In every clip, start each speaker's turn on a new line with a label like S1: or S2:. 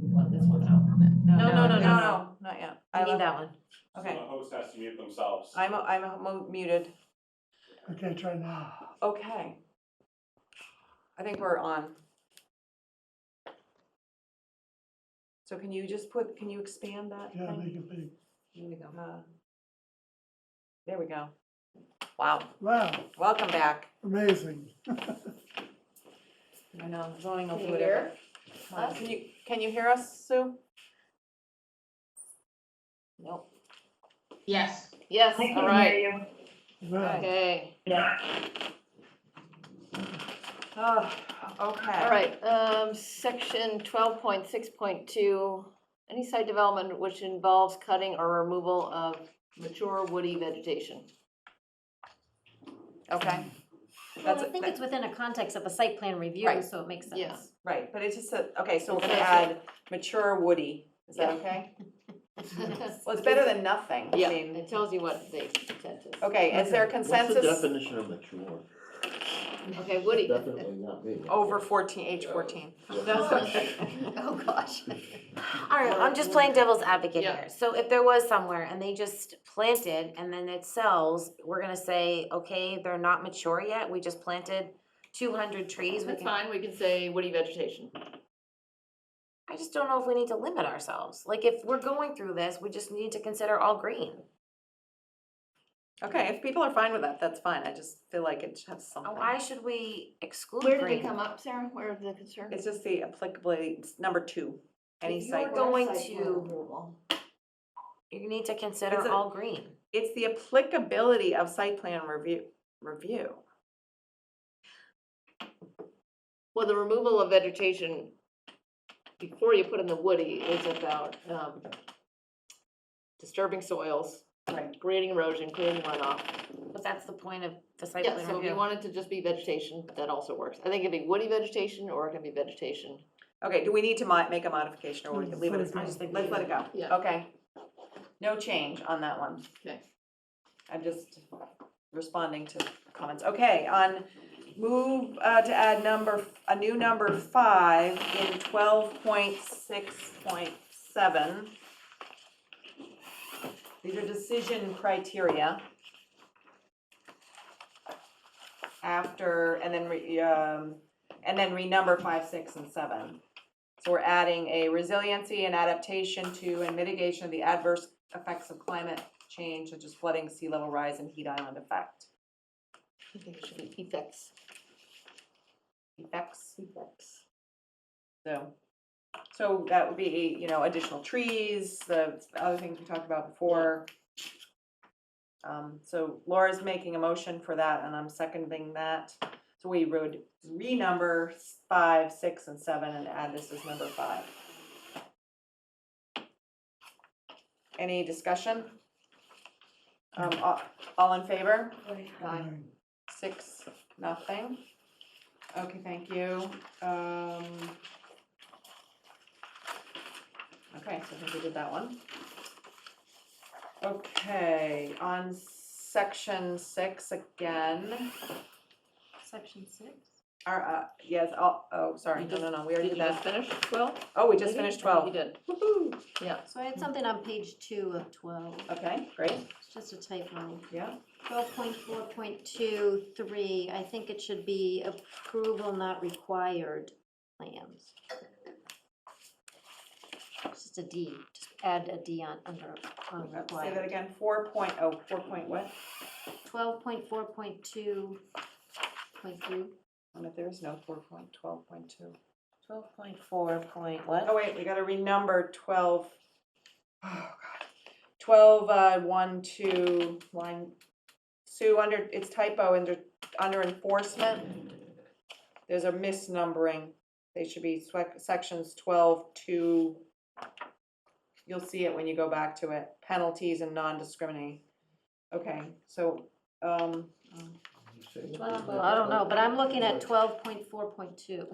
S1: want this one out. No,
S2: No, no, no, no,
S1: it's-
S2: no, not yet. I
S1: We need
S2: love,
S1: that one.
S2: okay.
S3: So the host has to mute themselves.
S2: I'm, I'm mo- muted.
S4: Okay, try now.
S2: Okay. I think we're on. So can you just put, can you expand that?
S4: Yeah,
S2: thing?
S4: make it big.
S1: Here we go.
S2: Uh, There we go. Wow,
S4: Wow,
S2: welcome back.
S4: amazing.
S2: I know, zoning will
S5: Can
S2: do
S5: you
S2: it.
S5: hear us?
S2: Can you, can you hear us, Sue? Nope.
S6: Yes.
S5: Yes,
S7: I
S5: all
S7: can
S5: right,
S7: hear you.
S4: Wow.
S5: okay,
S2: Oh, okay.
S5: all right, um, section twelve point six point two. Any site development which involves cutting or removal of mature woody vegetation.
S2: Okay,
S8: Well,
S2: That's
S8: I
S2: a-
S8: think
S2: that-
S8: it's within a context of a site plan review,
S2: Right.
S8: so it makes sense.
S5: Yeah.
S2: right, but it's just, a- okay, so we're gonna
S5: Okay.
S2: add mature woody, is that
S5: Yeah.
S2: okay?
S5: Yeah,
S2: Well, it's better than nothing, I mean,
S5: it tells you what the intent is.
S2: okay, is there
S9: What's the
S2: consensus
S9: definition of mature?
S5: Okay, woody.
S9: Definitely not me.
S2: over fourteen, age fourteen?
S5: Oh, gosh.
S8: All right, I'm just playing devil's advocate
S5: Yeah.
S8: here. So if there was somewhere and they just planted and then it sells, we're gonna say, okay, they're not mature yet, we just planted two hundred trees, we
S5: That's
S8: can,
S5: fine, we can say woody vegetation.
S8: I just don't know if we need to limit ourselves. Like, if we're going through this, we just need to consider all green.
S2: Okay, if people are fine with that, that's fine, I just feel like it should have something.
S8: Why should we exclude
S5: Where did it
S8: green?
S5: come up, Sarah? Where the concern?
S2: It's just the applicability, it's number two, any
S8: If you were
S2: site.
S8: going- to- You need to
S2: It's
S8: consider
S2: a-
S8: all green.
S2: It's the applicability of site plan review, review.
S5: Well, the removal of vegetation before you put in the woody is about um, disturbing soils,
S2: Right.
S5: grading erosion, creating runoff.
S8: But that's the point of the site
S5: Yeah,
S8: plan
S5: so if you
S8: review.
S5: want it to just be vegetation, that also works. I think it can be woody vegetation or it can be vegetation.
S2: Okay, do we need to mo- make a modification or we
S4: Mm,
S2: can leave it
S4: so
S2: as,
S4: it's- I
S8: just think
S2: let's
S8: we
S2: let it go?
S5: Yeah.
S2: Okay. No change on that one.
S5: Okay.
S2: I'm just responding to comments. Okay, on move uh, to add number, f- a new number five in twelve point six point seven. These are decision criteria. After, and then, re- um, and then renumber five, six, and seven. So we're adding a resiliency and adaptation to and mitigation of the adverse effects of climate change such as flooding, sea level rise, and heat island effect.
S5: I think it should be effects.
S2: Effects,
S5: Effects.
S2: so, so that would be, you know, additional trees, the other things we talked about before. Um, so Laura's making a motion for that, and I'm seconding that. So we would renumber five, six, and seven, and add this as number five. Any discussion? Um, all, all in favor?
S5: Aye.
S2: Six, nothing. Okay, thank you. Um. Okay, so I think we did that one. Okay, on section six again,
S8: Section six?
S2: our, uh, yes, oh, oh, sorry,
S5: You
S2: no, no, no, we already
S5: Did you
S2: did
S5: just
S2: that.
S5: finish twelve?
S2: Oh, we just
S5: maybe?
S2: finished
S5: I think
S2: twelve.
S5: You did.
S2: Woo-hoo.
S8: So I had something on page two of twelve,
S2: Okay,
S5: Um,
S2: great,
S8: it's just a typo.
S2: yeah,
S8: Twelve point four point two three, I think it should be approval not required plans. It's Just a D, just add a D on, under, on
S2: Uh, say that
S8: required.
S2: again, four point, oh, four point what?
S8: Twelve point four point two point three.
S2: And if there's no four point, twelve point two.
S1: Twelve point four point what?
S2: Oh, wait, we gotta renumber twelve. Oh, God. Twelve, uh, one, two, line, Sue, under, it's typo, under, under enforcement. There's a misnumbering, they should be swec- sections twelve, two. You'll see it when you go back to it, penalties and non-discriminating. Okay, so, um,
S8: Well, I don't know, but I'm looking at twelve point four point two,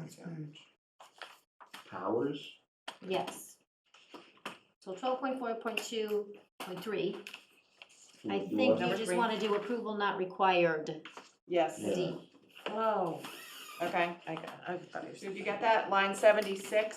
S4: Next page.
S9: Powers?
S8: yes. So twelve point four point two point three, I
S9: Do
S8: think
S9: what?
S8: you
S2: Number
S8: just
S2: three.
S8: wanna do approval not required,
S2: yes,
S9: Yeah.
S8: D.
S1: Whoa,
S2: okay.
S1: Oh. I got, I thought you were.
S2: Sue, did you get that? Line seventy-six?